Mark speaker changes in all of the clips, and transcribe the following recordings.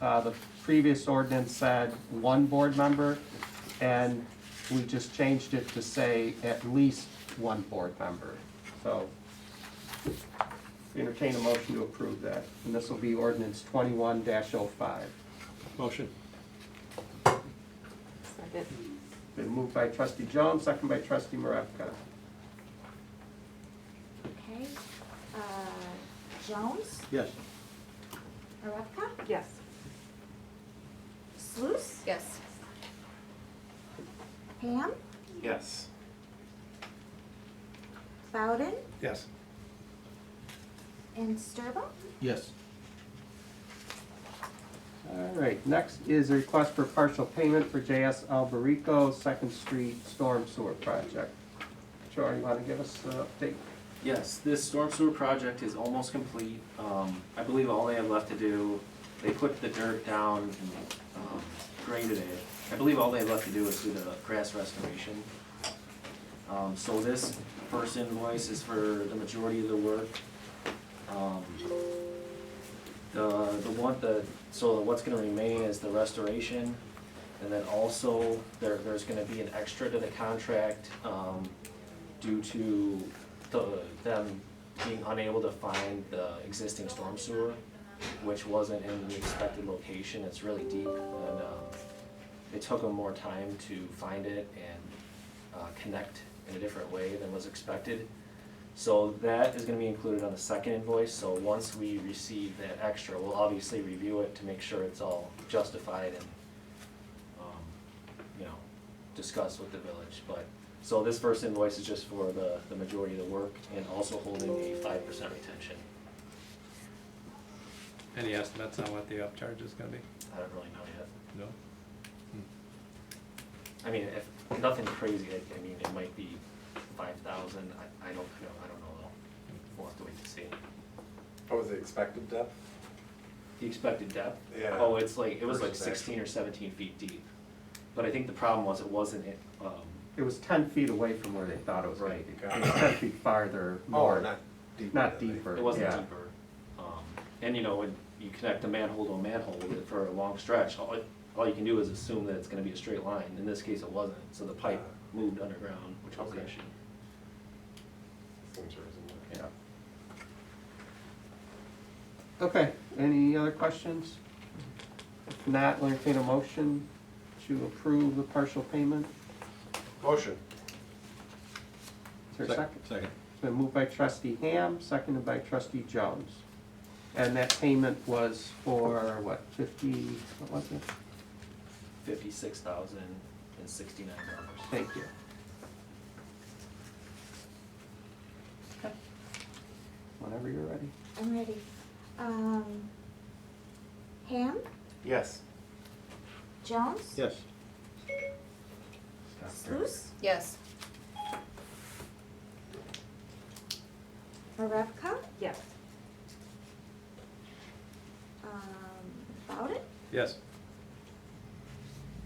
Speaker 1: Uh, the previous ordinance said one board member, and we just changed it to say at least one board member. So entertain a motion to approve that, and this will be ordinance twenty-one oh 5
Speaker 2: Motion.
Speaker 3: Second.
Speaker 1: Been moved by trustee Jones, second by trustee Maravka.
Speaker 4: Okay, uh, Jones,
Speaker 2: Yes.
Speaker 4: Maravka,
Speaker 3: Yes.
Speaker 4: Sluse,
Speaker 3: Yes.
Speaker 4: Ham,
Speaker 2: Yes.
Speaker 4: Bowden,
Speaker 2: Yes.
Speaker 4: and Sturba.
Speaker 2: Yes.
Speaker 1: All right, next is a request for partial payment for JS Alberico Second Street Storm Sewer Project. Charlie, you want to give us an update?
Speaker 5: Yes, this storm sewer project is almost complete. Um, I believe all they have left to do, they put the dirt down and, um, graded it. I believe all they have left to do is do the grass restoration. Um, so this first invoice is for the majority of the work. Um, The, the one, the, so what's gonna remain is the restoration. And then also, there, there's gonna be an extra to the contract, um, due to the, them being unable to find the existing storm sewer, which wasn't in the expected location, it's really deep, and, um, it took them more time to find it and, uh, connect in a different way than was expected. So that is gonna be included on the second invoice, so once we receive that extra, we'll obviously review it to make sure it's all justified and, um, you know, discuss with the village, but so this first invoice is just for the, the majority of the work and also holding a five percent retention.
Speaker 6: Any estimates on what the upcharge is gonna be?
Speaker 5: I don't really know yet.
Speaker 6: No.
Speaker 5: I mean, if, nothing crazy, like, I mean, it might be five thousand, I, I don't know, I don't know though. We'll have to wait to see.
Speaker 7: What was the Oh, expected depth?
Speaker 5: The expected depth?
Speaker 7: Yeah.
Speaker 5: Oh, it's like, it was like
Speaker 7: Versus actual.
Speaker 5: sixteen or seventeen feet deep. But I think the problem was it wasn't, it, um,
Speaker 1: It was ten feet away from where they thought it was gonna be.
Speaker 7: Right.
Speaker 1: It was ten feet farther,
Speaker 7: Oh,
Speaker 1: more,
Speaker 7: not deeper.
Speaker 1: not
Speaker 7: than they-
Speaker 1: deeper,
Speaker 5: it wasn't
Speaker 1: yeah.
Speaker 5: deeper. Um, and you know, when you connect a manhole to a manhole with- for a long stretch, all, it- all you can do is assume that it's gonna be a straight line. In this case, it wasn't, so the pipe moved underground, which was the
Speaker 7: Okay.
Speaker 5: issue.
Speaker 7: Seems reasonable.
Speaker 1: Yeah. Okay, any other questions? If not, we'll entertain a motion to approve the partial payment.
Speaker 7: Motion.
Speaker 1: Is there a second?
Speaker 2: Second.
Speaker 1: It's been moved by trustee Ham, seconded by trustee Jones. And that payment was for, what, fifty, what was it?
Speaker 5: Fifty-six thousand and sixty-nine dollars.
Speaker 1: Thank you. Whenever you're ready.
Speaker 4: I'm ready. Um, Ham,
Speaker 5: Yes.
Speaker 4: Jones,
Speaker 2: Yes.
Speaker 4: Sluse,
Speaker 3: Yes.
Speaker 4: Maravka,
Speaker 3: Yes.
Speaker 4: um, Bowden,
Speaker 6: Yes.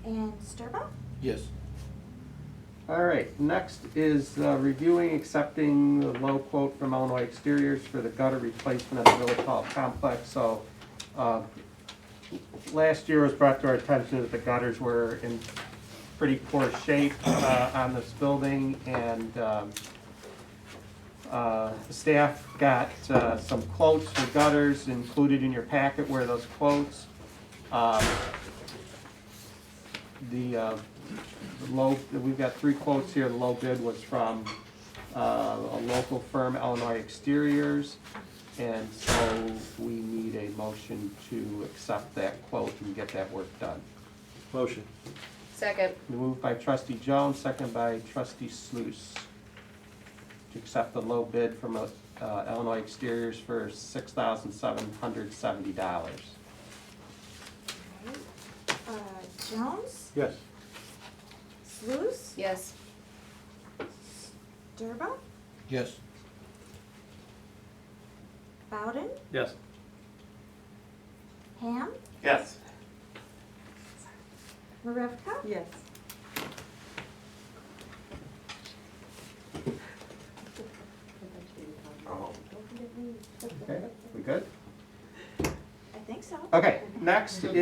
Speaker 4: and Sturba.
Speaker 2: Yes.
Speaker 1: All right, next is uh, reviewing, accepting the low quote from Illinois Exteriors for the gutter replacement of the Village Hall complex. So, uh, last year was brought to our attention that the gutters were in pretty poor shape uh, on this building, and um, uh, staff got uh, some quotes for gutters included in your packet were those quotes. Um, The uh, the low, we've got three quotes here, the low bid was from, uh, a local firm, Illinois Exteriors. And so we need a motion to accept that quote and get that work done.
Speaker 2: Motion.
Speaker 3: Second.
Speaker 1: Moved by trustee Jones, second by trustee Sluse. To accept the low bid from, uh, Illinois Exteriors for six thousand seven hundred seventy dollars.
Speaker 4: Alright. Uh, Jones,
Speaker 2: Yes.
Speaker 4: Sluse,
Speaker 3: Yes.
Speaker 4: Sturba,
Speaker 2: Yes.
Speaker 4: Bowden,
Speaker 6: Yes.
Speaker 4: Ham,
Speaker 5: Yes.
Speaker 4: Maravka,
Speaker 3: Yes.
Speaker 7: Oh.
Speaker 1: Okay, we good?
Speaker 4: I think so.
Speaker 1: Okay, next